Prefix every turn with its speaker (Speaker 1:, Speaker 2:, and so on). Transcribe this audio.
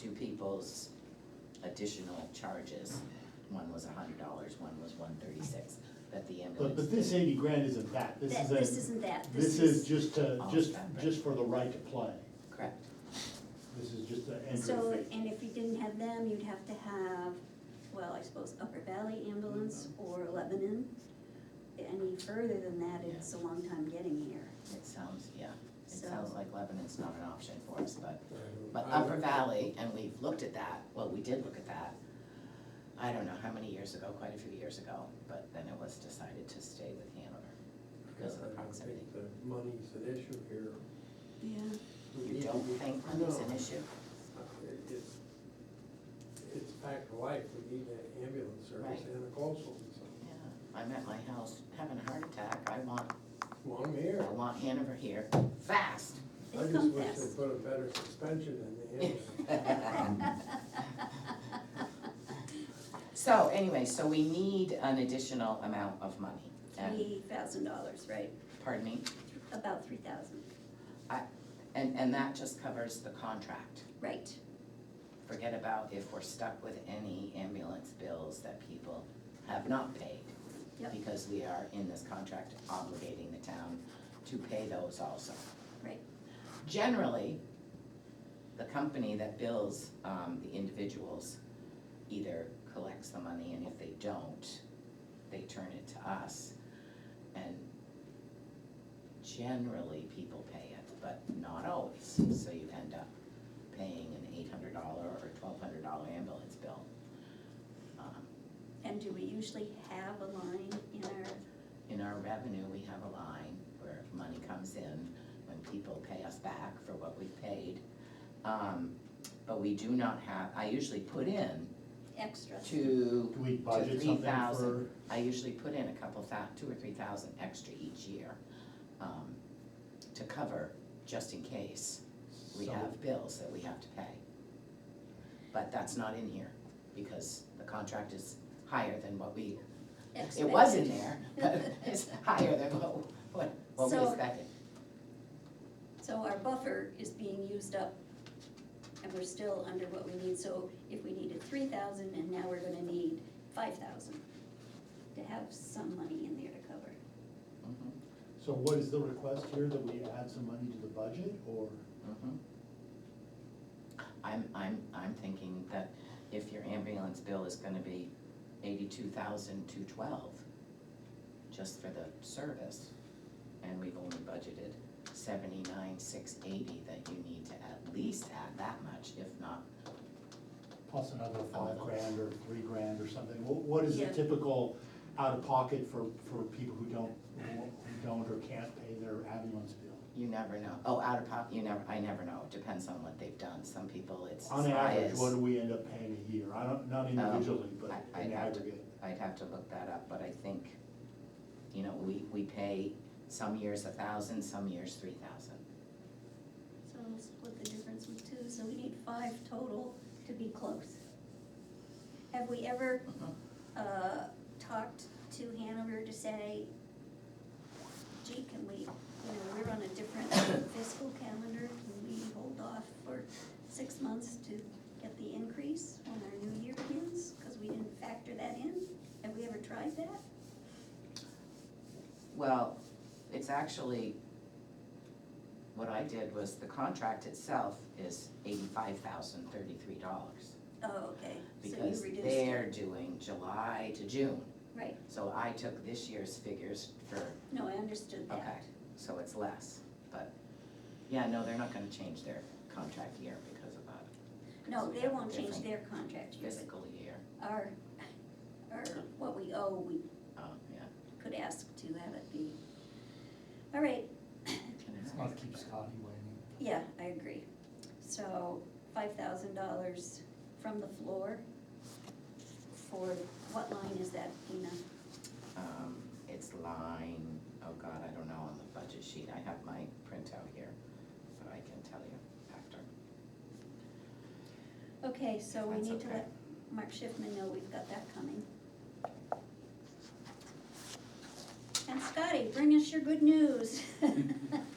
Speaker 1: two people's additional charges. One was a hundred dollars, one was one thirty-six, that the
Speaker 2: But,
Speaker 1: ambulance.
Speaker 2: but this eighty grand isn't that, this
Speaker 3: That,
Speaker 2: is
Speaker 3: this
Speaker 2: a,
Speaker 3: isn't that,
Speaker 2: this is just to,
Speaker 1: Oh,
Speaker 2: just,
Speaker 1: okay.
Speaker 2: just for the right to play.
Speaker 1: Correct,
Speaker 2: This is just an
Speaker 3: So,
Speaker 2: entry fee.
Speaker 3: and if you didn't have them, you'd have to have, well, I suppose Upper Valley Ambulance
Speaker 2: Mm-hmm.
Speaker 3: or Lebanon. Any further than that, it's a long time getting here,
Speaker 1: it sounds, yeah, it
Speaker 3: so.
Speaker 1: sounds like Lebanon's not an option for us, but, but
Speaker 4: I-
Speaker 1: Upper Valley, and we've looked at that, well, we did look at that. I don't know how many years ago, quite a few years ago, but then it was decided to stay with Hanover because of the
Speaker 4: I don't
Speaker 1: proximity.
Speaker 4: think The money's an issue here.
Speaker 3: Yeah.
Speaker 1: You don't think money's an
Speaker 4: No.
Speaker 1: issue?
Speaker 4: It's, it's a fact of life, we need an ambulance service
Speaker 1: Right.
Speaker 4: and a coastal, and so,
Speaker 1: Yeah, I'm at my house having a heart attack, I want,
Speaker 4: well, I'm
Speaker 1: I
Speaker 4: here.
Speaker 1: want Hanover here, fast.
Speaker 4: I
Speaker 3: They
Speaker 4: just
Speaker 3: come
Speaker 4: wish
Speaker 3: fast.
Speaker 4: they put a better suspension in the ambulance.
Speaker 1: So anyway, so we need an additional amount of money, and,
Speaker 3: Three thousand dollars, right,
Speaker 1: pardon me,
Speaker 3: about three thousand,
Speaker 1: and, and that just covers the contract.
Speaker 3: right,
Speaker 1: Forget about if we're stuck with any ambulance bills that people have not paid.
Speaker 3: Yep.
Speaker 1: Because we are in this contract obligating the town to pay those also.
Speaker 3: Right.
Speaker 1: Generally, the company that bills um, the individuals either collects the money and if they don't, they turn it to us. And generally, people pay it, but not always, so you end up paying an eight hundred dollar or twelve hundred dollar ambulance bill. Um,
Speaker 3: and do we usually have a line in our,
Speaker 1: In our revenue, we have a line where money comes in when people pay us back for what we paid. Um, But we do not have, I usually put in
Speaker 3: extra?
Speaker 1: two,
Speaker 2: Do we budget something for,
Speaker 1: 3,000. I usually put in a couple thou, two or three thousand extra each year um, to cover, just in case we
Speaker 2: so,
Speaker 1: have bills that we have to pay. But that's not in here, because the contract is higher than what we, it was in there, but it's higher than what, what, what we
Speaker 3: So-
Speaker 1: expected.
Speaker 3: So our buffer is being used up and we're still under what we need, so if we needed three thousand and now we're gonna need five thousand to have some money in there to cover.
Speaker 1: Mhm,
Speaker 2: so what is the request here, that we add some money to the budget, or?
Speaker 1: mhm. I'm, I'm, I'm thinking that if your ambulance bill is gonna be eighty-two thousand two twelve, just for the service, and we've only budgeted seventy-nine six eighty, that you need to at least add that much, if not
Speaker 2: Plus another
Speaker 1: A
Speaker 2: five
Speaker 1: little.
Speaker 2: grand or three grand or something, what, what is the
Speaker 3: Yeah.
Speaker 2: typical out-of-pocket for, for people who don't, who don't or can't pay their ambulance bill?
Speaker 1: You never know. Oh, out of pocket, you never, I never know. It depends on what they've done. Some people, it's as
Speaker 2: On
Speaker 1: high
Speaker 2: average,
Speaker 1: as,
Speaker 2: what do we end up paying a year, I don't, not individually, but
Speaker 1: I- I'd
Speaker 2: in
Speaker 1: have to-
Speaker 2: aggregate,
Speaker 1: I'd have to look that up, but I think, you know, we, we pay some years a thousand, some years three thousand.
Speaker 3: So we'll split the difference with two, so we need five total to be close. Have we ever,
Speaker 1: Mm-hmm.
Speaker 3: uh, talked to Hanover to say, gee, can we, you know, we're on a different fiscal calendar, can we hold off for six months to get the increase when our new year begins? Cause we didn't factor that in, have we ever tried that?
Speaker 1: Well, it's actually, what I did was the contract itself is eighty-five thousand thirty-three dollars.
Speaker 3: Oh, okay, so you
Speaker 1: Because
Speaker 3: reduced it.
Speaker 1: they're doing July to June.
Speaker 3: Right,
Speaker 1: So I took this year's figures for
Speaker 3: no, I understood that.
Speaker 1: Okay, so it's less, but, yeah, no, they're not gonna change their contract year because of that.
Speaker 3: No,
Speaker 1: Because we
Speaker 3: they
Speaker 1: have a
Speaker 3: won't change
Speaker 1: different
Speaker 3: their contract, year, but
Speaker 1: Fiscal year,
Speaker 3: our, our, what we owe, we
Speaker 1: oh, yeah.
Speaker 3: could ask to have it be. All right,
Speaker 1: Can I-
Speaker 5: It's gonna keep Scotty waiting.
Speaker 3: yeah, I agree. So five thousand dollars from the floor for, what line is that, Dina?
Speaker 1: Um, it's line, oh god, I don't know, on the budget sheet, I have my printout here, but I can tell you after.
Speaker 3: Okay, so we
Speaker 1: That's
Speaker 3: need to
Speaker 1: okay.
Speaker 3: let Mark Schiffman know we've got that coming. And Scotty, bring us your good news.